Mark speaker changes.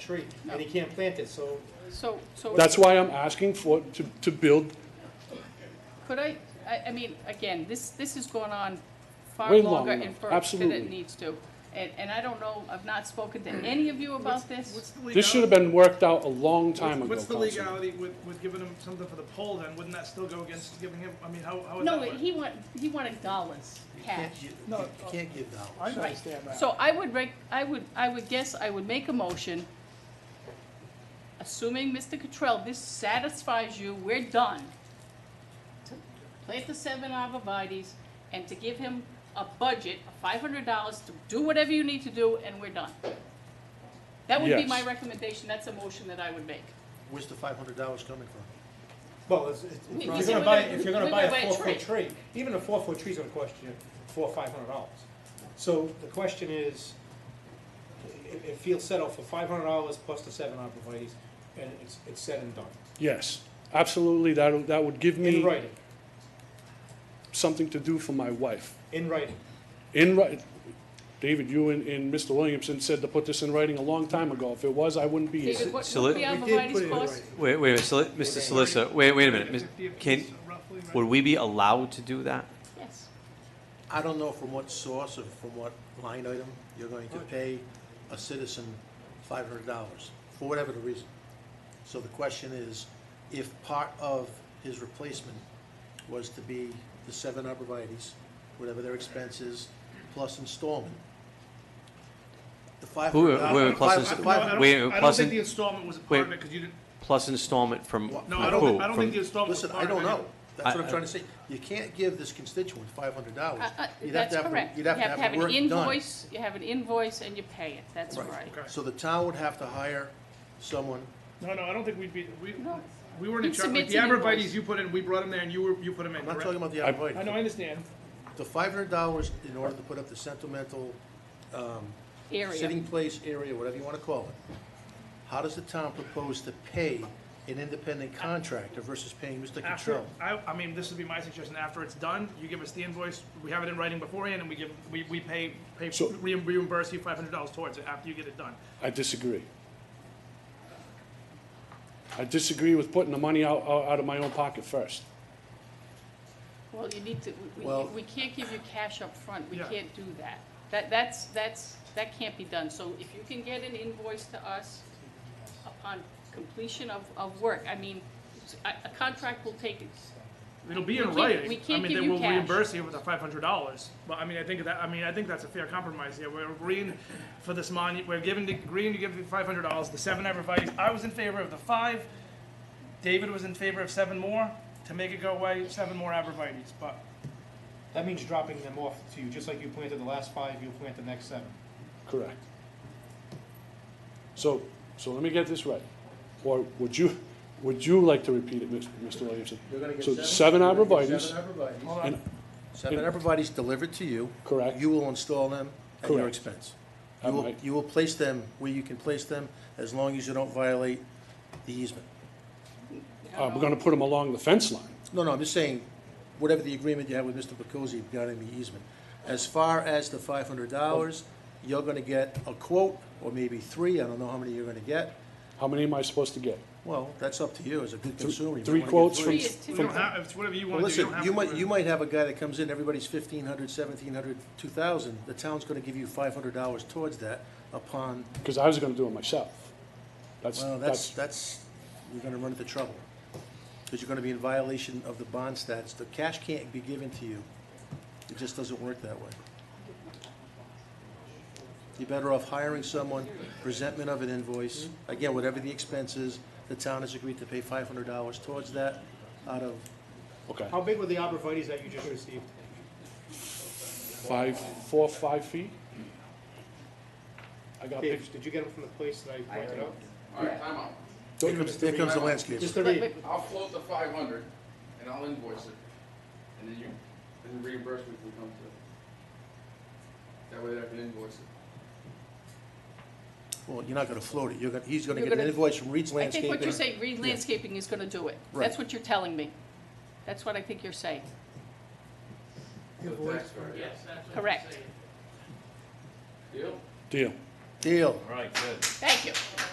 Speaker 1: tree, and he can't plant it, so
Speaker 2: So, so
Speaker 3: That's why I'm asking for, to, to build
Speaker 2: could I, I, I mean, again, this, this has gone on far
Speaker 3: Way
Speaker 2: longer
Speaker 3: long
Speaker 2: and
Speaker 3: enough,
Speaker 2: further than
Speaker 3: absolutely.
Speaker 2: it needs to. And, and I don't know, I've not spoken to any of you about this.
Speaker 3: This should have been worked out a long time ago,
Speaker 4: What's the
Speaker 3: Councilman.
Speaker 4: legality with, with giving him something for the poll then? Wouldn't that still go against giving him, I mean, how, how would that
Speaker 2: No,
Speaker 4: work?
Speaker 2: he want, he wanted dollars,
Speaker 1: you
Speaker 2: cash.
Speaker 1: can't give,
Speaker 4: No, uh,
Speaker 1: you can't give dollars.
Speaker 4: I
Speaker 2: Right.
Speaker 4: understand that.
Speaker 2: So I would rec, I would, I would guess I would make a motion, assuming, Mr. Cottrell, this satisfies you, we're done. To Plant the seven arborvitae's and to give him a budget of five hundred dollars to do whatever you need to do, and we're done. That would be
Speaker 3: Yes.
Speaker 2: my recommendation, that's a motion that I would make.
Speaker 5: Where's the five hundred dollars coming from?
Speaker 1: Well, it's, it's,
Speaker 2: We-
Speaker 1: if
Speaker 2: we
Speaker 1: you're
Speaker 2: said
Speaker 1: gonna
Speaker 2: we're
Speaker 1: buy,
Speaker 2: gonna-
Speaker 1: if you're gonna
Speaker 2: we're
Speaker 1: buy
Speaker 2: gonna
Speaker 1: a
Speaker 2: buy a
Speaker 1: four foot tree, even a four foot tree's gonna cost you four, or five hundred dollars. So the question is, it, it feels settled for five hundred dollars plus the seven arborvitae's, and it's, it's said and done,
Speaker 3: Yes, absolutely, that, that would give
Speaker 1: in
Speaker 3: me
Speaker 1: writing,
Speaker 3: something to do for my wife.
Speaker 1: in writing.
Speaker 3: In writing, David, you and, and Mr. Williamson said to put this in writing a long time ago. If it was, I wouldn't be here.
Speaker 2: David, what
Speaker 6: so
Speaker 2: would
Speaker 6: let-
Speaker 2: the
Speaker 1: We did put it
Speaker 2: arborvitae's
Speaker 1: in
Speaker 2: cost?
Speaker 1: writing.
Speaker 6: Wait, wait, a minute, soli- Mr. Solicitor, wait, wait a minute. Miss-
Speaker 4: 50 apiece,
Speaker 6: Can,
Speaker 4: roughly, right?
Speaker 6: would we be allowed to do that?
Speaker 2: Yes,
Speaker 5: I don't know from what source or from what line item you're going to pay a citizen five hundred dollars, for whatever the reason. So the question is, if part of his replacement was to be the seven arborvitae's, whatever their expense is, plus installment, the five
Speaker 6: Who-
Speaker 5: hundred
Speaker 6: who-
Speaker 5: dollars.
Speaker 6: plus inst-
Speaker 4: No, I don't,
Speaker 6: Wait,
Speaker 4: I don't
Speaker 6: plus
Speaker 4: think
Speaker 6: in-
Speaker 4: the installment was a part of
Speaker 6: wait.
Speaker 4: it, cause you didn't,
Speaker 6: Plus installment from
Speaker 5: Well,
Speaker 4: no,
Speaker 6: from
Speaker 4: I don't think,
Speaker 6: who?
Speaker 4: I don't
Speaker 6: From-
Speaker 4: think the installment was
Speaker 5: Listen, I
Speaker 4: part of it.
Speaker 5: don't know. That's what
Speaker 6: I-
Speaker 5: I'm trying to say. You can't give this constituent five hundred dollars.
Speaker 2: Uh, uh, that's correct.
Speaker 5: You'd have to have the work
Speaker 2: an
Speaker 5: done.
Speaker 2: invoice, you have an invoice and you pay it, that's right.
Speaker 4: Okay.
Speaker 5: So the town would have to hire someone,
Speaker 4: No, no, I don't think we'd be, we,
Speaker 2: No.
Speaker 4: we weren't in
Speaker 2: He
Speaker 4: charge, like
Speaker 2: submits
Speaker 4: the
Speaker 2: an invoice.
Speaker 4: arborvitae's you put in, we brought them there and you were, you put them in,
Speaker 5: I'm not
Speaker 4: correct?
Speaker 5: talking about the
Speaker 3: I-
Speaker 4: I know, I
Speaker 5: arborvitae.
Speaker 4: understand.
Speaker 5: The five hundred dollars in order to put up the sentimental
Speaker 2: Area.
Speaker 5: sitting place area, whatever you wanna call it. How does the town propose to pay an independent contractor versus paying Mr.
Speaker 4: After,
Speaker 5: Cottrell?
Speaker 4: I, I mean, this would be my suggestion, after it's done, you give us the invoice, we have it in writing beforehand, and we give, we, we pay, pay,
Speaker 3: So-
Speaker 4: reimburse you five hundred dollars towards it after you get it done.
Speaker 3: I disagree. I disagree with putting the money out, out out of my own pocket first.
Speaker 2: Well, you need to, we- we,
Speaker 5: Well-
Speaker 2: we can't give you cash up front. we
Speaker 4: Yeah.
Speaker 2: can't do that. That, that's, that's, that can't be done, so if you can get an invoice to us upon completion of, of work, I mean, a, a contract will take,
Speaker 4: It'll be in
Speaker 2: can't-
Speaker 4: writing.
Speaker 2: we can't
Speaker 4: I mean,
Speaker 2: give
Speaker 4: they
Speaker 2: you
Speaker 4: will
Speaker 2: cash.
Speaker 4: reimburse you with the five hundred dollars. But I mean, I think that I mean, I think that's a fair compromise here. We're agreeing for this money. We're giving the, agreeing to give the five hundred dollars. The seven everybody's. I was in favor of the five. David was in favor of seven more to make it go away. Seven more arborvitae's, but
Speaker 1: That means dropping them off to you, just like you planted the last five, you'll plant the next seven.
Speaker 3: Correct. So, so let me get this right. Or would you, would you like to repeat it, Mr. Mr. Williamson?
Speaker 5: You're gonna get
Speaker 3: So seven
Speaker 5: you're gonna get
Speaker 3: arborvitae's,
Speaker 5: Seven arborvitae's.
Speaker 4: hold on.
Speaker 5: Seven arborvitae's delivered to you.
Speaker 3: Correct.
Speaker 5: You will install them at your
Speaker 3: Correct.
Speaker 5: expense.
Speaker 3: I
Speaker 5: You will,
Speaker 3: might.
Speaker 5: you will place them where you can place them, as long as you don't violate the easement.
Speaker 3: uh, we're gonna put them along the fence line.
Speaker 5: No, no, I'm just saying, whatever the agreement you have with Mr. Pacozzi regarding the easement. As far as the five hundred dollars, you're gonna get a quote, or maybe three, I don't know how many you're gonna get.
Speaker 3: How many am I supposed to get?
Speaker 5: Well, that's up to you as a good consumer. You might
Speaker 3: Three
Speaker 5: wanna get
Speaker 3: quotes
Speaker 2: three
Speaker 3: from,
Speaker 2: is too
Speaker 4: we don't
Speaker 3: from,
Speaker 4: have. It's whatever you
Speaker 5: Well,
Speaker 4: want to do.
Speaker 5: listen,
Speaker 4: don't have
Speaker 5: you
Speaker 4: to
Speaker 5: might,
Speaker 4: do it.
Speaker 5: you might have a guy that comes in, everybody's fifteen hundred, seventeen hundred, two thousand, the town's gonna give you five hundred dollars towards that upon,
Speaker 3: because I was gonna do it myself. That's,
Speaker 5: well, that's,
Speaker 3: that's,
Speaker 5: that's, you're gonna run into trouble. Because you're gonna be in violation of the bond stats, the cash can't be given to you, it just doesn't work that way. You're better off hiring someone, presentment of an invoice, again, whatever the expense is, the town has agreed to pay five hundred dollars towards that out of
Speaker 3: okay.
Speaker 1: How big were the arborvitae's that you just received?
Speaker 3: Five, four, five feet? I got
Speaker 1: Dave,
Speaker 3: pictures.
Speaker 1: did you get them from the place that I rented out?
Speaker 7: All right, time out.
Speaker 5: Here comes, here comes the landscaper.
Speaker 1: Just the
Speaker 2: Wait,
Speaker 1: re-
Speaker 2: wait,
Speaker 7: I'll float the five hundred and I'll invoice it. And then you, and the reimbursement can come to. That way I can invoice it.
Speaker 5: Well, you're not gonna float it, you're gonna, he's gonna
Speaker 2: You're
Speaker 5: get an
Speaker 2: gonna-
Speaker 5: invoice from
Speaker 2: I
Speaker 5: Reed's
Speaker 2: think
Speaker 5: Landscaping.
Speaker 2: what you're saying, Reed Landscaping is gonna do it, that's
Speaker 5: Right.
Speaker 2: what you're telling me. That's what I think you're saying,
Speaker 7: So the tax card.
Speaker 2: correct,
Speaker 7: Deal?
Speaker 3: Deal.
Speaker 5: Deal.
Speaker 2: thank you.